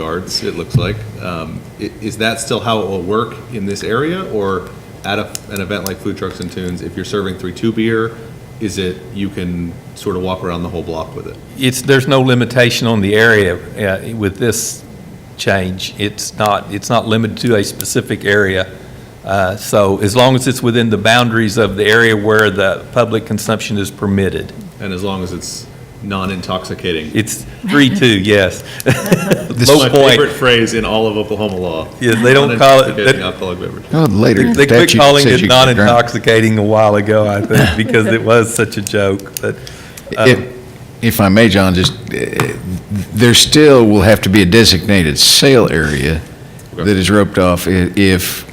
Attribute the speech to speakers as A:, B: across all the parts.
A: guards, it looks like. Um, i- Is that still how it will work in this area? Or at a- an event like Food Trucks and Tunes, if you're serving 3-2 beer, is it, you can sort of walk around the whole block with it?
B: It's, there's no limitation on the area uh, with this change. It's not, it's not limited to a specific area. Uh, So as long as it's within the boundaries of the area where the public consumption is permitted.
A: And as long as it's non-intoxicating.
B: It's three-two, yes.
A: This
B: Low
A: is my
B: point.
A: favorite phrase in all of Oklahoma law.
B: Yeah, they don't call it-
A: Non-intoxicating
B: they-
A: alcoholic beverage.
C: Oh, Later.
B: They quit
C: statute
B: calling
C: says
B: it
C: you can drink.
B: non-intoxicating a while ago, I think, because it was such a joke, but. um,
C: If- If I may, John, just, uh, there still will have to be a designated sale area that is roped off i- if,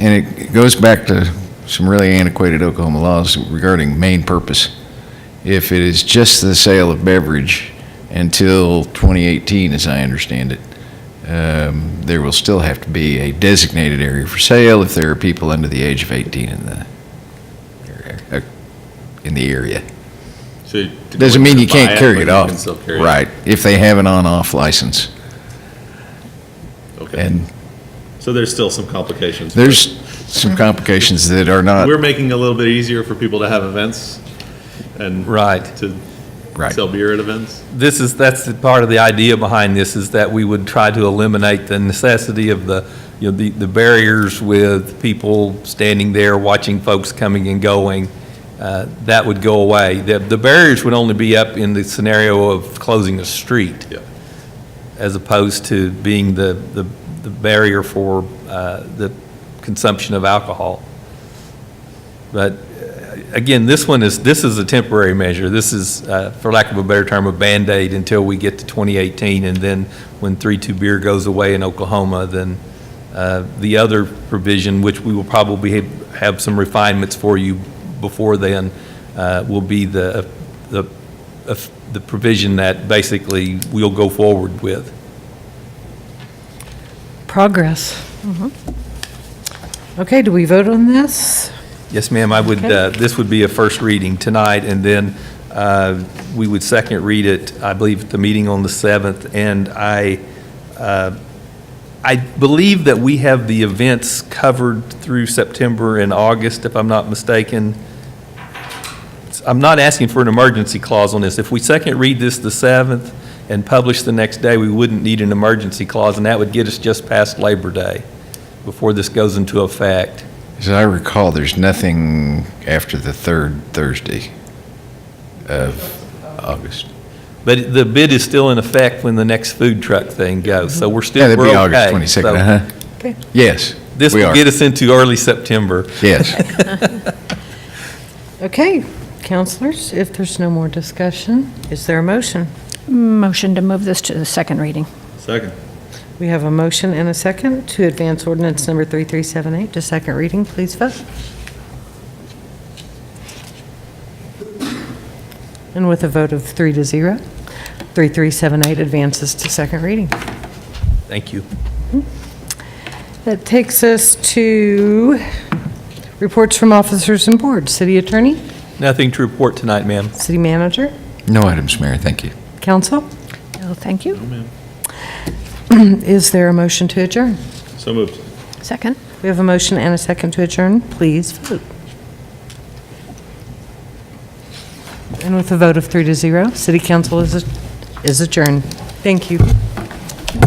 C: and it goes back to some really antiquated Oklahoma laws regarding main purpose. If it is just the sale of beverage until 2018, as I understand it, um, there will still have to be a designated area for sale if there are people under the age of 18 in the, area- uh, in the area.
A: So to
C: Doesn't mean you
A: buy
C: can't
A: but
C: carry it
A: you
C: off.
A: can still carry it.
C: Right, if they have an on-off license.
A: Okay.
C: And
A: So there's still some complications.
C: there's uh, some complications that are not,
A: We're making it a little bit easier for people to have events and
B: Right.
A: to
C: right.
A: sell beer at events.
B: This is, that's the part of the idea behind this, is that we would try to eliminate the necessity of the, you know, the, the barriers with people standing there, watching folks coming and going. Uh, That would go away. The, the barriers would only be up in the scenario of closing a street.
A: Yep.
B: As opposed to being the, the, the barrier for, uh, the consumption of alcohol. But again, this one is, this is a temporary measure. This is, uh, for lack of a better term, a Band-Aid until we get to 2018, and then when 3-2 beer goes away in Oklahoma, then uh, the other provision, which we will probably have- have some refinements for you before then, uh, will be the, the the provision that basically we'll go forward with.
D: Progress. Okay, do we vote on this?
B: Yes, ma'am, I would, uh, this would be a first reading tonight, and then uh, we would second read it, I believe, at the meeting on the 7th, and I, uh, I believe that we have the events covered through September and August, if I'm not mistaken. I'm not asking for an emergency clause on this. If we second read this the 7th and publish the next day, we wouldn't need an emergency clause, and that would get us just past Labor Day before this goes into effect.
C: As I recall, there's nothing after the third Thursday of August.
B: But the bid is still in effect when the next food truck thing goes, so we're
C: Yeah,
B: still,
C: that'd
B: we're okay.
C: be August 22nd,
B: So
C: uh-huh.
D: Okay.
C: Yes,
B: This
C: we
B: will
C: are,
B: get us into early September.
C: yes.
D: Okay, counselors, if there's no more discussion, is there a motion?
E: Motion to move this to the second reading.
A: Second.
D: We have a motion and a second to advance ordinance number 3378 to second reading. Please vote. And with a vote of three to zero, 3378 advances to second reading.
B: Thank you.
D: That takes us to reports from officers and boards. City Attorney,
B: Nothing to report tonight, ma'am.
D: City Manager,
C: No items, Mayor, thank you.
D: Council.
E: No, Oh, thank you.
D: Is there a motion to adjourn?
A: So moved.
E: Second?
D: We have a motion and a second to adjourn. Please vote. And with a vote of three to zero, City Council is is adjourned. Thank you.